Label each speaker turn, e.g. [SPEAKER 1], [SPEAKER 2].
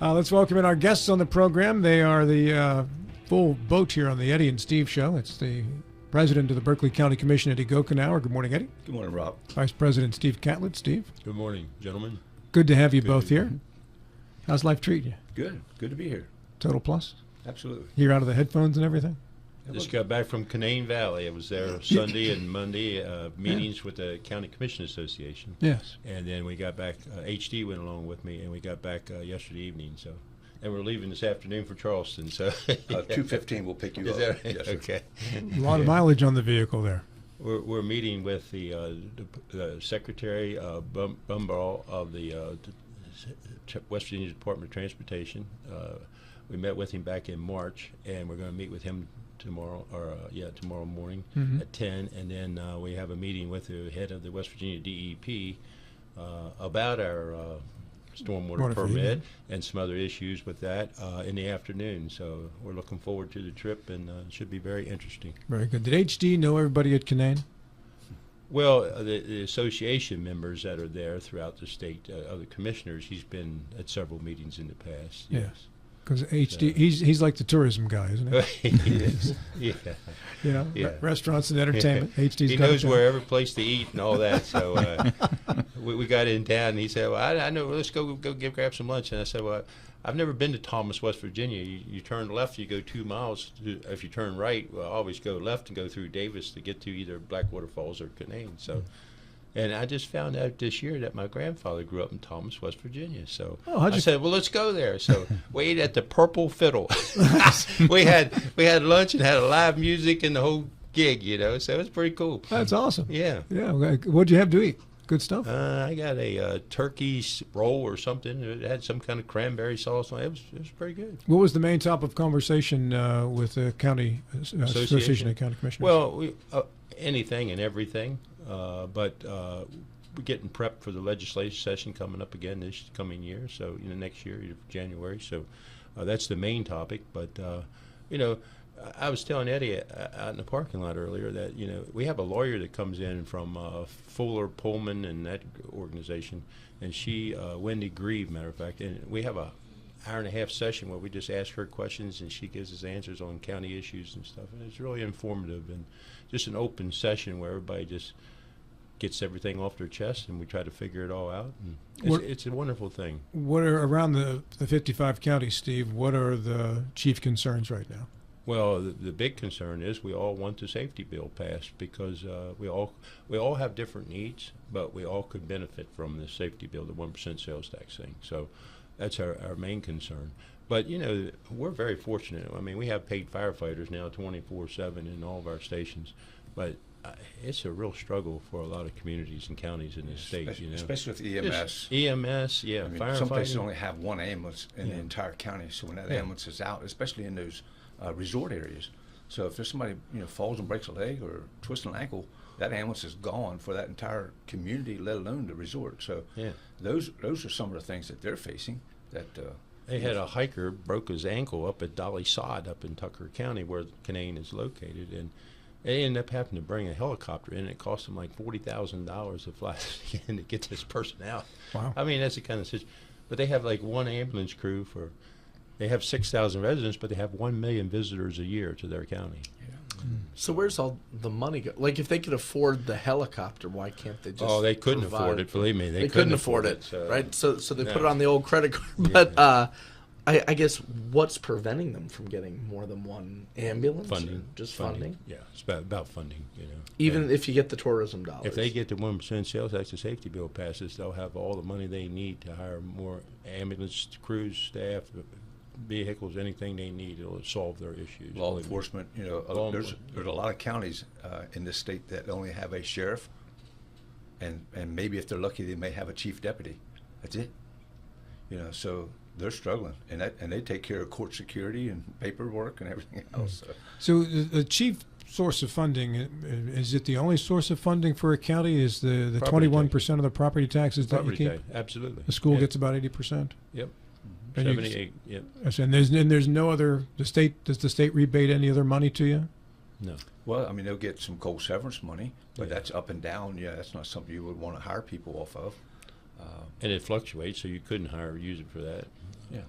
[SPEAKER 1] Uh, let's welcome in our guests on the program. They are the uh, full boat here on the Eddie and Steve show. It's the president of the Berkeley County Commission, Eddie Gokenauer. Good morning, Eddie.
[SPEAKER 2] Good morning, Rob.
[SPEAKER 1] Vice President Steve Catlett. Steve,
[SPEAKER 3] Good morning, gentlemen.
[SPEAKER 1] good to have you
[SPEAKER 3] Good
[SPEAKER 1] both
[SPEAKER 3] to be
[SPEAKER 1] here. How's life treating you?
[SPEAKER 2] Good. Good to be here.
[SPEAKER 1] Total plus?
[SPEAKER 2] Absolutely.
[SPEAKER 1] You're out of the headphones and everything?
[SPEAKER 3] Just got back from Canaan Valley. I was there Sunday and Monday, uh, meetings with the County Commission Association.
[SPEAKER 1] Yes.
[SPEAKER 3] And then we got back, uh, HD went along with me, and we got back uh, yesterday evening, so. And we're leaving this afternoon for Charleston, so.
[SPEAKER 2] Uh, 215 will pick you
[SPEAKER 3] Is
[SPEAKER 2] up.
[SPEAKER 3] that right?
[SPEAKER 2] Yes, sir.
[SPEAKER 3] Okay.
[SPEAKER 1] A lot of mileage on the vehicle there.
[SPEAKER 3] We're, we're meeting with the, uh, the Secretary uh, Bum- Bumbaugh of the uh, t- t- West Virginia Department of Transportation. Uh, we met with him back in March, and we're going to meet with him tomorrow, or uh, yeah, tomorrow morning at 10. And then uh, we have a meeting with the head of the West Virginia DEP uh, about our uh, stormwater
[SPEAKER 1] Water for you,
[SPEAKER 3] permit and some other issues with that uh, in the afternoon. So we're looking forward to the trip, and uh, it should be very interesting.
[SPEAKER 1] Very good. Did HD know everybody at Canaan?
[SPEAKER 3] Well, uh, the, the association members that are there throughout the state, uh, other commissioners, he's been at several meetings in the past.
[SPEAKER 1] Yes. Because
[SPEAKER 3] Uh,
[SPEAKER 1] HD, he's, he's like the tourism guy, isn't he?
[SPEAKER 3] yes. yeah.
[SPEAKER 1] You know,
[SPEAKER 3] Yeah.
[SPEAKER 1] re- restaurants and entertainment. HD's
[SPEAKER 3] he
[SPEAKER 1] got it
[SPEAKER 3] knows
[SPEAKER 1] down.
[SPEAKER 3] where every place to eat and all that. So uh, we, we got in town, and he said, "Well, I, I know. Let's go go get, grab some lunch." And I said, "Well, I've never been to Thomas, West Virginia. You, you turn left, you go two miles. To, if you turn right, well, always go left and go through Davis to get to either Blackwater Falls or Canaan." So. And I just found out this year that my grandfather grew up in Thomas, West Virginia. So
[SPEAKER 1] Oh, how'd
[SPEAKER 3] I
[SPEAKER 1] you-
[SPEAKER 3] said, "Well, let's go there." So we ate at the Purple Fiddle. we had we had lunch and had live music and the whole gig, you know. So it was pretty cool.
[SPEAKER 1] That's awesome.
[SPEAKER 3] Yeah.
[SPEAKER 1] Yeah. well, What'd you have to eat? Good stuff.
[SPEAKER 3] Uh, I got a uh, turkey s- roll or something. It had some kind of cranberry sauce on it. It was, it was pretty good.
[SPEAKER 1] What was the main top of conversation uh, with the county uh, association.
[SPEAKER 3] Association.
[SPEAKER 1] of county commissioners?
[SPEAKER 3] Well, we, uh, anything and everything, uh, but uh, we're getting prepped for the legislative session coming up again this coming year. So you know, next year, January. So uh, that's the main topic. But uh, you know, I- I was telling Eddie uh, out in the parking lot earlier that you know we have a lawyer that comes in from uh, Fuller Pullman and that organization, and she uh, Wendy Grieve, matter of fact, and we have a hour and a half session where we just ask her questions and she gives us answers on county issues and stuff. And it's really informative and just an open session where everybody just gets everything off their chest and we try to figure it all out. And it's,
[SPEAKER 1] What-
[SPEAKER 3] it's a wonderful thing.
[SPEAKER 1] what are around the, the 55 counties, Steve? What are the chief concerns right now?
[SPEAKER 3] Well, the, the big concern is we all want the safety bill passed because uh, we all we all have different needs, but we all could benefit from the safety bill, the one percent sales tax thing. So that's our, our main concern. But you know, we're very fortunate. I mean, we have paid firefighters now twenty four seven in all of our stations, but uh, it's a real struggle for a lot of communities and counties in this state. You know,
[SPEAKER 2] Especially with EMS.
[SPEAKER 3] Just EMS, yeah,
[SPEAKER 2] I mean, some places
[SPEAKER 3] firefighting.
[SPEAKER 2] only have one ambulance in
[SPEAKER 3] Yeah.
[SPEAKER 2] the entire county. So when that
[SPEAKER 3] Yeah.
[SPEAKER 2] ambulance is out, especially in those uh, resort areas, so if there's somebody you know falls and breaks a leg or twists an ankle, that ambulance is gone for that entire community, let alone the resort. So
[SPEAKER 3] Yeah.
[SPEAKER 2] those those are some of the things that they're facing. That uh,
[SPEAKER 3] They had a hiker broke his ankle up at Dolly Sod up in Tucker County where Canaan is located and they ended up having to bring a helicopter in. It cost them like forty thousand dollars to fly in to get this person out.
[SPEAKER 1] Wow.
[SPEAKER 3] I mean that's the kind of situation. But they have like one ambulance crew for they have six thousand residents, but they have one million visitors a year to their county.
[SPEAKER 4] So where's all the money go? Like if they could afford the helicopter, why can't they just?
[SPEAKER 3] oh, they couldn't
[SPEAKER 4] provide-
[SPEAKER 3] afford it. Believe me, they,
[SPEAKER 4] They, couldn't, afford it,
[SPEAKER 3] so-
[SPEAKER 4] right? So so they put
[SPEAKER 3] no.
[SPEAKER 4] it on the old credit card. But uh, I, I guess what's preventing them from getting more than one ambulance?
[SPEAKER 3] Funding,
[SPEAKER 4] just funding.
[SPEAKER 3] Yeah, it's about, about funding. You know,
[SPEAKER 4] Even
[SPEAKER 3] And-
[SPEAKER 4] if you get the tourism dollars,
[SPEAKER 3] If they get the one percent sales tax and safety bill passes, they'll have all the money they need to hire more ambulance crews, staff, vehicles, anything they need. It'll solve their issues.
[SPEAKER 2] law
[SPEAKER 3] Believe me.
[SPEAKER 2] enforcement, you know, uh,
[SPEAKER 3] Law
[SPEAKER 2] there's
[SPEAKER 3] enforcement.
[SPEAKER 2] there's a lot of counties uh, in this state that only have a sheriff, and and maybe if they're lucky, they may have a chief deputy. That's it. You know, so they're struggling, and that and they take care of court security and paperwork and everything
[SPEAKER 3] Mm-hmm.
[SPEAKER 2] else. So.
[SPEAKER 1] So the, the chief source of funding i- is it the only source of funding for a county? Is the the
[SPEAKER 3] Property
[SPEAKER 1] twenty one percent of the property taxes that
[SPEAKER 3] Property
[SPEAKER 1] you keep?
[SPEAKER 3] tax, absolutely.
[SPEAKER 1] The school
[SPEAKER 3] Yeah,
[SPEAKER 1] gets about eighty percent.
[SPEAKER 3] yep.
[SPEAKER 1] And you-
[SPEAKER 3] Seventy-eight. Yep.
[SPEAKER 1] And there's and there's no other. The state does the state rebate any other money to you?
[SPEAKER 3] No.
[SPEAKER 2] Well, I mean, they'll get some cold severance money, but
[SPEAKER 3] Yeah.
[SPEAKER 2] that's up and down. Yeah, that's not something you would want to hire people off of. Uh,
[SPEAKER 3] And it fluctuates, so you couldn't hire use it for that.
[SPEAKER 2] Yeah.